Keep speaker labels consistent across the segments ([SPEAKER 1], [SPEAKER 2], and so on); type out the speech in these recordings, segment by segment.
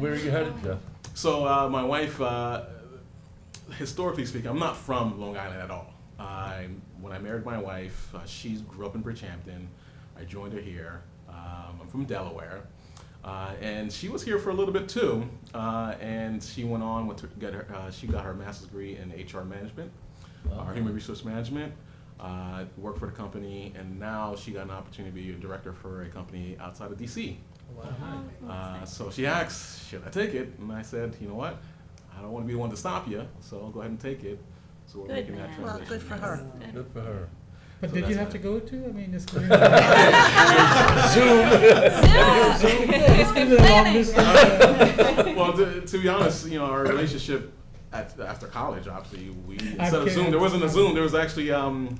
[SPEAKER 1] Where are you headed, Jeff?
[SPEAKER 2] So uh, my wife, uh, historically speaking, I'm not from Long Island at all. I, when I married my wife, uh, she grew up in Bridgehampton. I joined her here. Um, I'm from Delaware, uh, and she was here for a little bit too. Uh, and she went on with her, get her, uh, she got her master's degree in HR management, or human resource management. Uh, worked for the company, and now she got an opportunity to be a director for a company outside of DC. Uh, so she asked, should I take it? And I said, you know what? I don't want to be the one to stop you, so I'll go ahead and take it. So we're
[SPEAKER 3] Good
[SPEAKER 2] making that
[SPEAKER 3] man.
[SPEAKER 2] transition.
[SPEAKER 3] Well,
[SPEAKER 4] good for her.
[SPEAKER 1] Good for her.
[SPEAKER 5] But
[SPEAKER 2] So
[SPEAKER 5] did you
[SPEAKER 2] that's
[SPEAKER 5] have
[SPEAKER 2] it.
[SPEAKER 5] to go to? I mean, it's going to be a long distance.
[SPEAKER 2] well, to, to be honest, you know, our relationship at, after college, obviously, we instead of Zoom,
[SPEAKER 5] kidding.
[SPEAKER 2] there wasn't a Zoom. There was actually um,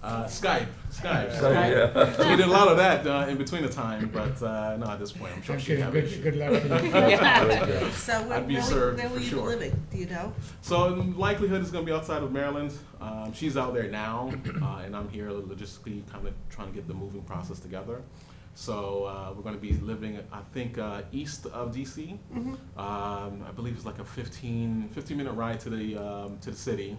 [SPEAKER 2] uh, Skype. Skype.
[SPEAKER 1] So, yeah.
[SPEAKER 2] So we did a lot of that uh, in between the time, but uh, no, at this point, I'm sure
[SPEAKER 5] I'm
[SPEAKER 2] she
[SPEAKER 5] kidding.
[SPEAKER 2] have an
[SPEAKER 5] Good,
[SPEAKER 2] issue.
[SPEAKER 5] good luck to you.
[SPEAKER 1] Very good.
[SPEAKER 4] So where,
[SPEAKER 2] I'd be
[SPEAKER 4] where, will-
[SPEAKER 2] served
[SPEAKER 4] where
[SPEAKER 2] for
[SPEAKER 4] will you be
[SPEAKER 2] sure.
[SPEAKER 4] living, do you know?
[SPEAKER 2] So in likelihood it's going to be outside of Maryland. Um, she's out there now, uh, and I'm here logistically, kind of trying to get the moving process together. So uh, we're going to be living, I think, uh, east of DC.
[SPEAKER 4] Mm-hmm.
[SPEAKER 2] Um, I believe it's like a 15, 15 minute ride to the um, to the city,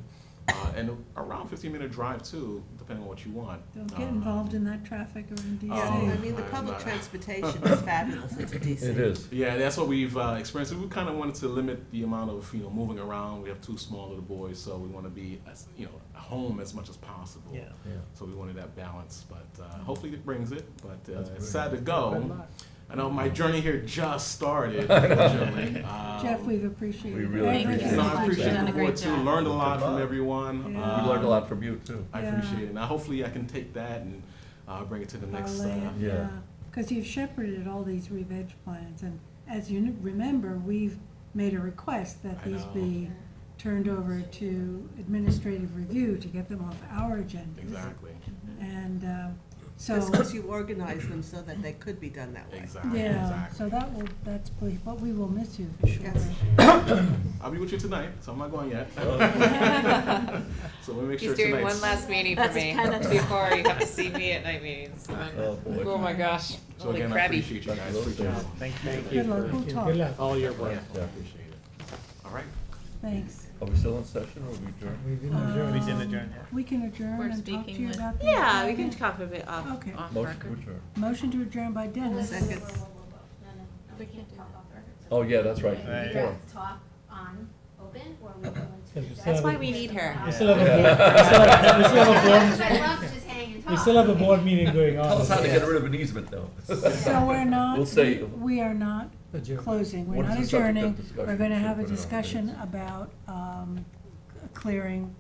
[SPEAKER 2] uh, and around 15 minute drive too, depending on what you want.
[SPEAKER 6] Don't get
[SPEAKER 2] Uh,
[SPEAKER 6] involved in that traffic around
[SPEAKER 2] Oh,
[SPEAKER 4] Yeah, I
[SPEAKER 6] DC.
[SPEAKER 4] mean, the
[SPEAKER 2] I'm
[SPEAKER 4] public
[SPEAKER 2] not-
[SPEAKER 4] transportation is fabulous into DC.
[SPEAKER 1] It is.
[SPEAKER 2] Yeah, that's what we've uh, experienced. We kind of wanted to limit the amount of you know moving around. We have two small little boys, so we want to be as, you know home as much as possible.
[SPEAKER 5] Yeah.
[SPEAKER 1] Yeah.
[SPEAKER 2] So we wanted that balance, but uh, hopefully it brings it. But uh,
[SPEAKER 1] That's
[SPEAKER 2] it's
[SPEAKER 1] brilliant.
[SPEAKER 2] sad to
[SPEAKER 5] Good
[SPEAKER 2] go.
[SPEAKER 5] luck.
[SPEAKER 2] I know my journey here just started. unfortunately. Um,
[SPEAKER 6] Jeff, we've appreciated.
[SPEAKER 1] We really appreciate
[SPEAKER 6] everything
[SPEAKER 2] no,
[SPEAKER 6] you've
[SPEAKER 2] I
[SPEAKER 1] it.
[SPEAKER 2] appreciate
[SPEAKER 3] You've
[SPEAKER 2] the
[SPEAKER 6] done.
[SPEAKER 3] done a
[SPEAKER 2] board
[SPEAKER 3] great
[SPEAKER 2] too.
[SPEAKER 3] job.
[SPEAKER 2] Learned a lot
[SPEAKER 1] Good
[SPEAKER 2] from
[SPEAKER 1] luck.
[SPEAKER 2] everyone. Um,
[SPEAKER 6] Yeah.
[SPEAKER 1] We learned a lot from you, too.
[SPEAKER 2] I
[SPEAKER 6] Yeah.
[SPEAKER 2] appreciate it, and I- hopefully I can take that and uh, bring it to the next.
[SPEAKER 6] Our
[SPEAKER 2] Uh,
[SPEAKER 6] land,
[SPEAKER 1] Yeah.
[SPEAKER 6] yeah. Cause you've shepherded all these revenge plans and as you n- remember, we've made a request that
[SPEAKER 2] I
[SPEAKER 6] these
[SPEAKER 2] know.
[SPEAKER 6] be turned over to administrative review to get them off our agenda.
[SPEAKER 2] exactly.
[SPEAKER 6] And, uh, so,
[SPEAKER 4] Just because you organized them so that they could be done that way.
[SPEAKER 2] Exactly.
[SPEAKER 6] yeah,
[SPEAKER 2] Exactly.
[SPEAKER 6] so that will, that's, ple- but we will miss you for sure.
[SPEAKER 4] Yes.
[SPEAKER 2] I'll be with you tonight, so I'm not going yet. so we make sure
[SPEAKER 7] He's doing
[SPEAKER 2] tonight's-
[SPEAKER 7] one last meeting for
[SPEAKER 3] That's
[SPEAKER 7] me
[SPEAKER 3] kind of-
[SPEAKER 7] before you have to see me at night meetings.
[SPEAKER 1] Oh, boy.
[SPEAKER 7] Oh my gosh,
[SPEAKER 2] So
[SPEAKER 7] holy
[SPEAKER 2] again, I
[SPEAKER 7] crabby.
[SPEAKER 2] appreciate you
[SPEAKER 1] Back to
[SPEAKER 2] guys.
[SPEAKER 1] those
[SPEAKER 2] Appreciate
[SPEAKER 1] days.
[SPEAKER 2] it.
[SPEAKER 8] Thank you
[SPEAKER 6] Good luck, we'll talk,
[SPEAKER 5] Good luck.
[SPEAKER 8] all your work.
[SPEAKER 2] Yeah, I appreciate it. All right.
[SPEAKER 6] thanks.
[SPEAKER 1] Are we still in session or are we adjourned?
[SPEAKER 5] We didn't adjourn.
[SPEAKER 8] We
[SPEAKER 6] Um,
[SPEAKER 8] didn't adjourn yet.
[SPEAKER 6] We can adjourn
[SPEAKER 3] We're
[SPEAKER 6] and talk to
[SPEAKER 3] speaking
[SPEAKER 6] you
[SPEAKER 3] with-
[SPEAKER 6] about the.
[SPEAKER 7] Yeah, we can talk a bit off,
[SPEAKER 6] Okay.
[SPEAKER 7] off
[SPEAKER 1] Motion to
[SPEAKER 7] record.
[SPEAKER 1] adjourn.
[SPEAKER 6] Motion to adjourn by Dennis.
[SPEAKER 4] Second.
[SPEAKER 9] We can't talk off the record.
[SPEAKER 1] Oh, yeah, that's right.
[SPEAKER 8] Right.
[SPEAKER 9] We
[SPEAKER 1] Forum.
[SPEAKER 9] have to talk on open or we go into.
[SPEAKER 5] That's
[SPEAKER 7] why we need her.
[SPEAKER 5] We still have a board, we still have, we still have a
[SPEAKER 9] Because
[SPEAKER 5] board,
[SPEAKER 9] I love to just hang and talk.
[SPEAKER 5] we still have a board meeting going on.
[SPEAKER 1] Tell us how to get rid of an easement, though.
[SPEAKER 6] So we're not,
[SPEAKER 1] We'll say-
[SPEAKER 6] we are not
[SPEAKER 5] Adjourn.
[SPEAKER 6] closing, we're
[SPEAKER 1] What is
[SPEAKER 6] not
[SPEAKER 1] the subject of
[SPEAKER 6] adjourning.
[SPEAKER 1] discussion?
[SPEAKER 6] We're gonna have
[SPEAKER 1] Put
[SPEAKER 6] a
[SPEAKER 1] it on the
[SPEAKER 6] discussion
[SPEAKER 1] minutes.
[SPEAKER 6] about, um, clearing,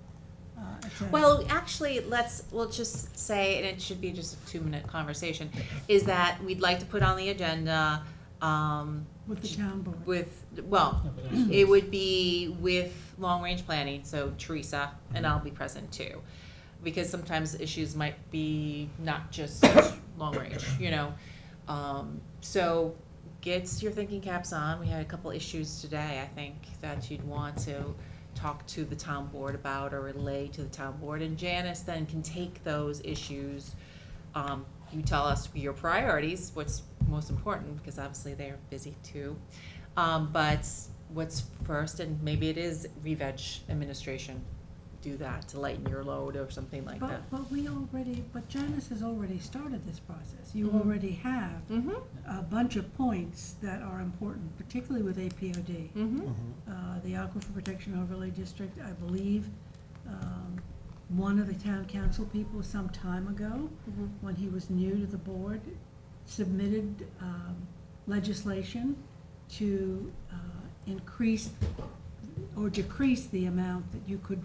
[SPEAKER 6] uh, it's a-
[SPEAKER 7] Well, actually, let's, we'll just say, and it should be just a two-minute conversation, is that we'd like to put on the agenda, um,
[SPEAKER 6] with the town board.
[SPEAKER 7] with, well, it would be with long-range planning, so Teresa, and I'll be present too. Because sometimes issues might be not just long-range, you know? Um, so gets your thinking caps on. We had a couple issues today, I think, that you'd want to talk to the town board about or relay to the town board. And Janice then can take those issues. Um, you tell us your priorities, what's most important, because obviously they're busy too. Um, but what's first, and maybe it is re-veg administration. Do that to lighten your load or something like that.
[SPEAKER 6] But, but we already, but Janice has already started this process. You
[SPEAKER 7] Mhm.
[SPEAKER 6] already have
[SPEAKER 7] Mm-hmm,
[SPEAKER 6] a bunch of points that are important, particularly with APOD.
[SPEAKER 7] mm-hmm.
[SPEAKER 6] uh, the Aquifer Protection Overlay District, I believe, um, one of the town council people some time ago,
[SPEAKER 7] Mhm.
[SPEAKER 4] Mm-hmm.
[SPEAKER 6] when he was new to the board, submitted um, legislation to uh, increase or decrease the amount that you could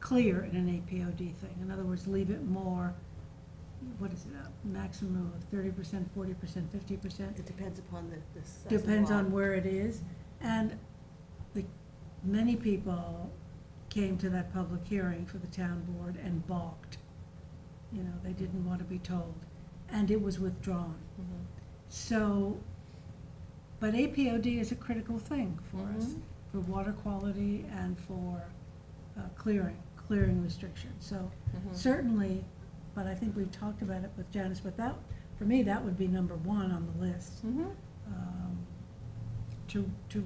[SPEAKER 6] clear in an APOD thing. In other words, leave it more, what is it, a maximum of thirty percent, forty percent, fifty percent?
[SPEAKER 4] It depends upon the, the size of the
[SPEAKER 6] depends
[SPEAKER 4] lot.
[SPEAKER 6] on where it is. And the, many people came to that public hearing for the town board and balked. You know, they didn't want to be told, and it was withdrawn. So, but APOD is a critical thing for us, for water quality and for uh, clearing, clearing restrictions. So
[SPEAKER 7] Mm-hmm.
[SPEAKER 6] certainly, but I think we've talked about it with Janice, but that, for me, that would be number one on the list.
[SPEAKER 7] Mm-hmm.
[SPEAKER 6] Um, to, to